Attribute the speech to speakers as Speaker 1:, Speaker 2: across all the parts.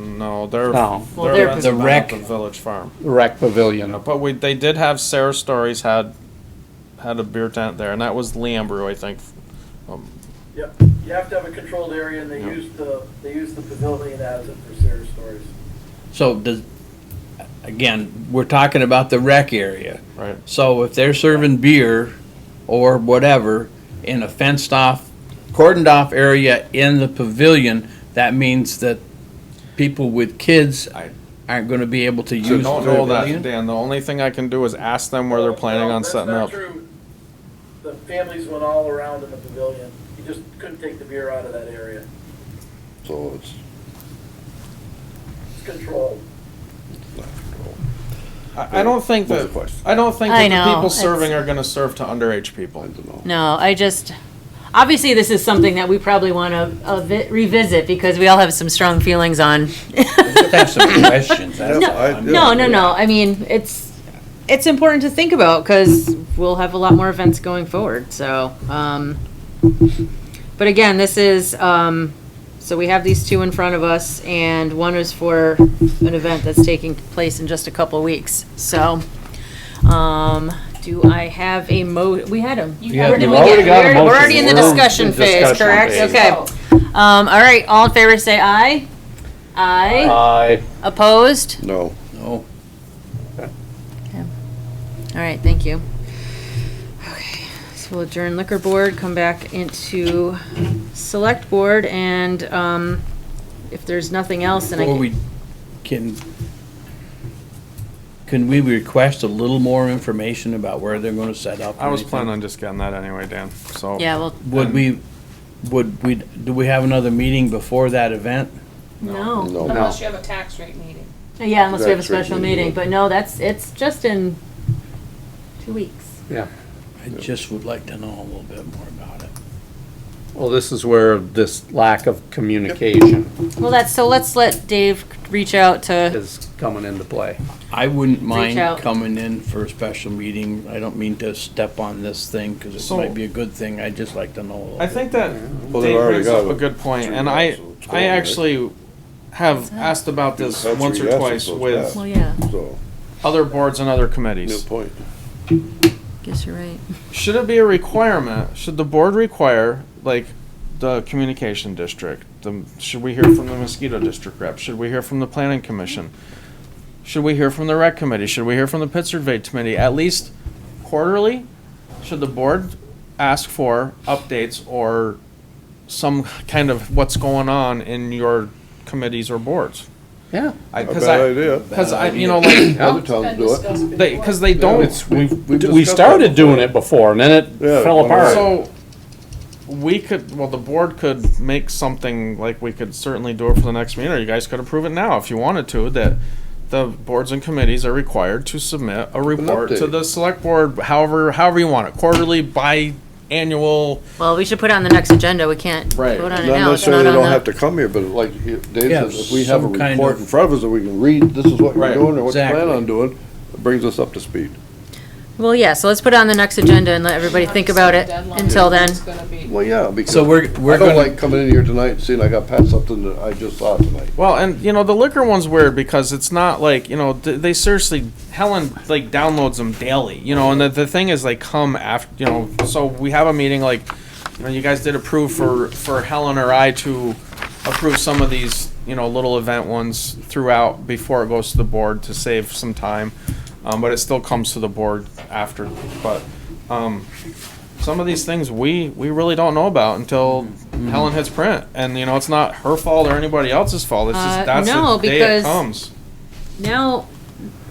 Speaker 1: No, they're
Speaker 2: No.
Speaker 3: Well, they're
Speaker 1: they're
Speaker 3: The
Speaker 1: renting
Speaker 2: rec-
Speaker 1: the Village Farm.
Speaker 2: Rec Pavilion.
Speaker 1: But we they did have Sarah Stories had had a beer tent there, and that was Leambrew, I think. Um,
Speaker 4: Yep, you have to have a controlled area, and they
Speaker 1: Yeah.
Speaker 4: use the, they use the pavilion as it for Sarah's stories.
Speaker 3: So does, again, we're talking about the rec area.
Speaker 1: right.
Speaker 3: So if they're serving beer or whatever in a fenced off, cordoned off area in the pavilion, that means that people with kids aren't gonna be able to
Speaker 1: You
Speaker 3: use the
Speaker 1: don't know that,
Speaker 3: pavilion?
Speaker 1: Dan. The only thing I can do is ask them where they're planning
Speaker 4: No,
Speaker 1: on
Speaker 4: that's
Speaker 1: setting
Speaker 4: not
Speaker 1: up.
Speaker 4: true. The families went all around in the pavilion, you just couldn't take the beer out of that area,
Speaker 5: So it's,
Speaker 4: it's controlled.
Speaker 1: I, I don't think
Speaker 5: What's
Speaker 1: that
Speaker 5: the question?
Speaker 1: I don't think that
Speaker 6: I
Speaker 1: the
Speaker 6: know,
Speaker 1: people
Speaker 6: it's-
Speaker 1: serving are going to serve to underage
Speaker 5: I
Speaker 1: people.
Speaker 5: don't know.
Speaker 6: No, I just, obviously, this is something that we probably want to revisit because we all have some strong feelings on.
Speaker 3: Just have some questions. that's
Speaker 5: Yeah,
Speaker 3: all.
Speaker 5: I-
Speaker 6: No, no, no. I mean, it's, it's important to think about because we'll have a lot more events going forward, so, um, but again, this is, um, so we have these two in front of us and one is for an event that's taking place in just a couple weeks, so, um, do I have a mo, we had them.
Speaker 3: You have
Speaker 2: We've
Speaker 3: the-
Speaker 6: Where did we
Speaker 2: already
Speaker 6: get-
Speaker 2: got a
Speaker 6: we're- We're
Speaker 2: motion.
Speaker 6: already in the
Speaker 2: We're in
Speaker 6: discussion phase,
Speaker 2: discussion
Speaker 6: correct?
Speaker 2: phase.
Speaker 6: Okay. Um, all right, all in favor say aye. Aye.
Speaker 2: Aye.
Speaker 6: Opposed?
Speaker 5: No.
Speaker 3: No.
Speaker 6: All right, thank you. Okay, so we'll adjourn liquor board, come back into select board, and, um, if there's nothing else, then I
Speaker 3: Or
Speaker 6: can.
Speaker 3: we can, can we request a little more information about where they're gonna set up?
Speaker 1: I was
Speaker 3: and
Speaker 1: planning on just getting that anyway, Dan. So
Speaker 6: Yeah, well,
Speaker 3: everything? Would we, would we, do we have another meeting before that event?
Speaker 6: no.
Speaker 5: No.
Speaker 7: Unless you have a tax rate meeting.
Speaker 6: Yeah, unless we have a
Speaker 5: That's right,
Speaker 6: special
Speaker 5: we
Speaker 6: meeting,
Speaker 5: will.
Speaker 6: but no, that's, it's just in two weeks.
Speaker 2: Yeah.
Speaker 3: I just would like to know a little bit more about it.
Speaker 2: Well, this is where this lack of communication
Speaker 6: Well, that's, so let's let Dave reach out to,
Speaker 2: is coming into play.
Speaker 3: I wouldn't mind
Speaker 6: out.
Speaker 3: coming in for a special meeting. I don't mean to step on this thing because it
Speaker 1: So-
Speaker 3: might be a good thing. I'd just like to know a little.
Speaker 1: I
Speaker 3: bit.
Speaker 1: think that
Speaker 5: Well, they've
Speaker 1: Dave
Speaker 5: already
Speaker 1: brings
Speaker 5: got
Speaker 1: up a good point,
Speaker 5: three
Speaker 1: and I,
Speaker 5: yes, so it's
Speaker 1: I
Speaker 5: going, right?
Speaker 1: actually have asked about this
Speaker 5: That's
Speaker 1: once
Speaker 5: three
Speaker 1: or
Speaker 5: yeses,
Speaker 1: twice
Speaker 5: so it's
Speaker 1: with
Speaker 6: well, yeah,
Speaker 5: So,
Speaker 1: other boards and other
Speaker 5: no
Speaker 1: committees.
Speaker 5: point.
Speaker 6: guess you're right.
Speaker 1: Should it be a requirement? Should the board require, like, the communication district? The, should we hear from the mosquito district rep? Should we hear from the planning commission? Should we hear from the rec committee? Should we hear from the pit survey committee? At least quarterly, should the board ask for updates or some kind of what's going on in your committees or boards?
Speaker 2: Yeah.
Speaker 1: I,
Speaker 5: A
Speaker 1: cause
Speaker 5: bad
Speaker 1: I,
Speaker 5: idea.
Speaker 1: cause I, you know, like,
Speaker 5: Other towns do it.
Speaker 1: they, cause they don't.
Speaker 2: It's, we, we
Speaker 5: We've
Speaker 2: we
Speaker 5: discussed
Speaker 2: started
Speaker 5: that
Speaker 2: doing it before and then it
Speaker 5: Yeah,
Speaker 2: fell
Speaker 5: well,
Speaker 2: apart.
Speaker 1: So, we could, well, the board could make something, like, we could certainly do it for the next meeting, or you guys could approve it now if you wanted to, that the boards and committees are required to submit a report to
Speaker 5: update.
Speaker 1: the select board, however, however you want it, quarterly, biannual.
Speaker 6: Well, we should put it on the next agenda. We can't
Speaker 1: Right.
Speaker 6: vote on
Speaker 5: Not
Speaker 6: it now. It's
Speaker 5: necessarily
Speaker 6: not
Speaker 5: they
Speaker 6: on
Speaker 5: don't have
Speaker 6: the.
Speaker 5: to come here, but like Dave
Speaker 3: Yeah,
Speaker 5: says, if we have a
Speaker 3: some kind
Speaker 5: report
Speaker 3: of-
Speaker 5: in front of us that we can read, this is what
Speaker 1: Right,
Speaker 5: we're doing or what we plan
Speaker 3: exactly.
Speaker 5: on doing, it brings us up to speed.
Speaker 6: Well, yeah, so let's put it on the next agenda and let everybody think about it
Speaker 7: Deadline
Speaker 6: until then.
Speaker 7: is gonna be-
Speaker 5: Well, yeah, because
Speaker 3: So we're,
Speaker 5: I
Speaker 3: we're
Speaker 5: don't
Speaker 3: gonna,
Speaker 5: like coming in here tonight and seeing I got passed something that I just saw tonight.
Speaker 1: Well, and, you know, the liquor one's weird because it's not like, you know, th- they seriously, Helen, like, downloads them daily, you know, and the, the thing is, they come after, you know, so we have a meeting, like, you know, you guys did approve for, for Helen or I to approve some of these, you know, little event ones throughout before it goes to the board to save some time. Um, but it still comes to the board after, but, um, some of these things we, we really don't know about until Helen hits print. And, you know, it's not her fault or anybody else's fault. It's
Speaker 6: Uh,
Speaker 1: just, that's
Speaker 6: no,
Speaker 1: the day
Speaker 6: because-
Speaker 1: it comes.
Speaker 6: Now,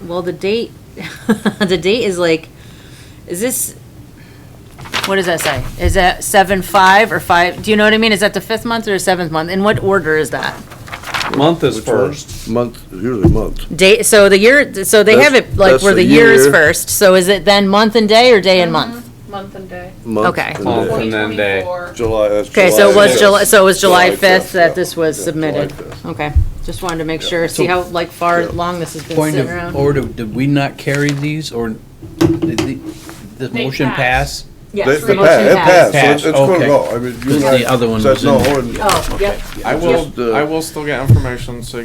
Speaker 6: well, the date, the date is like, is this, what does that say? Is that seven, five, or five? Do you know what I mean? Is that the fifth month or the seventh month? In what order is that?
Speaker 2: Month is
Speaker 5: Which one?
Speaker 2: first.
Speaker 5: Month, usually month.
Speaker 6: Date, so the year, so they have
Speaker 5: That's-
Speaker 6: it like
Speaker 5: that's
Speaker 6: where
Speaker 5: the
Speaker 6: the year is
Speaker 5: year.
Speaker 6: first. So is it then month and day or day and month?
Speaker 7: Month and day.
Speaker 5: Month
Speaker 6: Okay.
Speaker 5: and
Speaker 2: Month
Speaker 5: day.
Speaker 2: and then day.
Speaker 7: 2024.
Speaker 5: July, that's July.
Speaker 6: Okay, so it was
Speaker 5: fifth.
Speaker 6: July, so it was July
Speaker 5: July fifth,
Speaker 6: fifth that
Speaker 5: yeah.
Speaker 6: this was
Speaker 5: Yeah,
Speaker 6: submitted?
Speaker 5: July fifth.
Speaker 6: Okay, just wanted to make sure, see how like far long this has been
Speaker 3: point
Speaker 6: sitting
Speaker 3: of
Speaker 6: around?
Speaker 3: order, did we not carry these or did the, the
Speaker 7: They
Speaker 3: motion pass?
Speaker 7: passed.
Speaker 6: Yes,
Speaker 5: It
Speaker 6: the
Speaker 5: it
Speaker 6: motion
Speaker 5: passed, it passed, so
Speaker 3: passed.
Speaker 5: it's- it's gonna
Speaker 3: Okay.
Speaker 5: go. I mean, you
Speaker 3: Because
Speaker 5: and I
Speaker 3: the other one
Speaker 5: said
Speaker 3: was in
Speaker 5: no,
Speaker 3: there.
Speaker 5: and-
Speaker 6: Oh, yep.
Speaker 1: I
Speaker 5: Just,
Speaker 1: will,
Speaker 5: uh,
Speaker 1: I will still get information, so you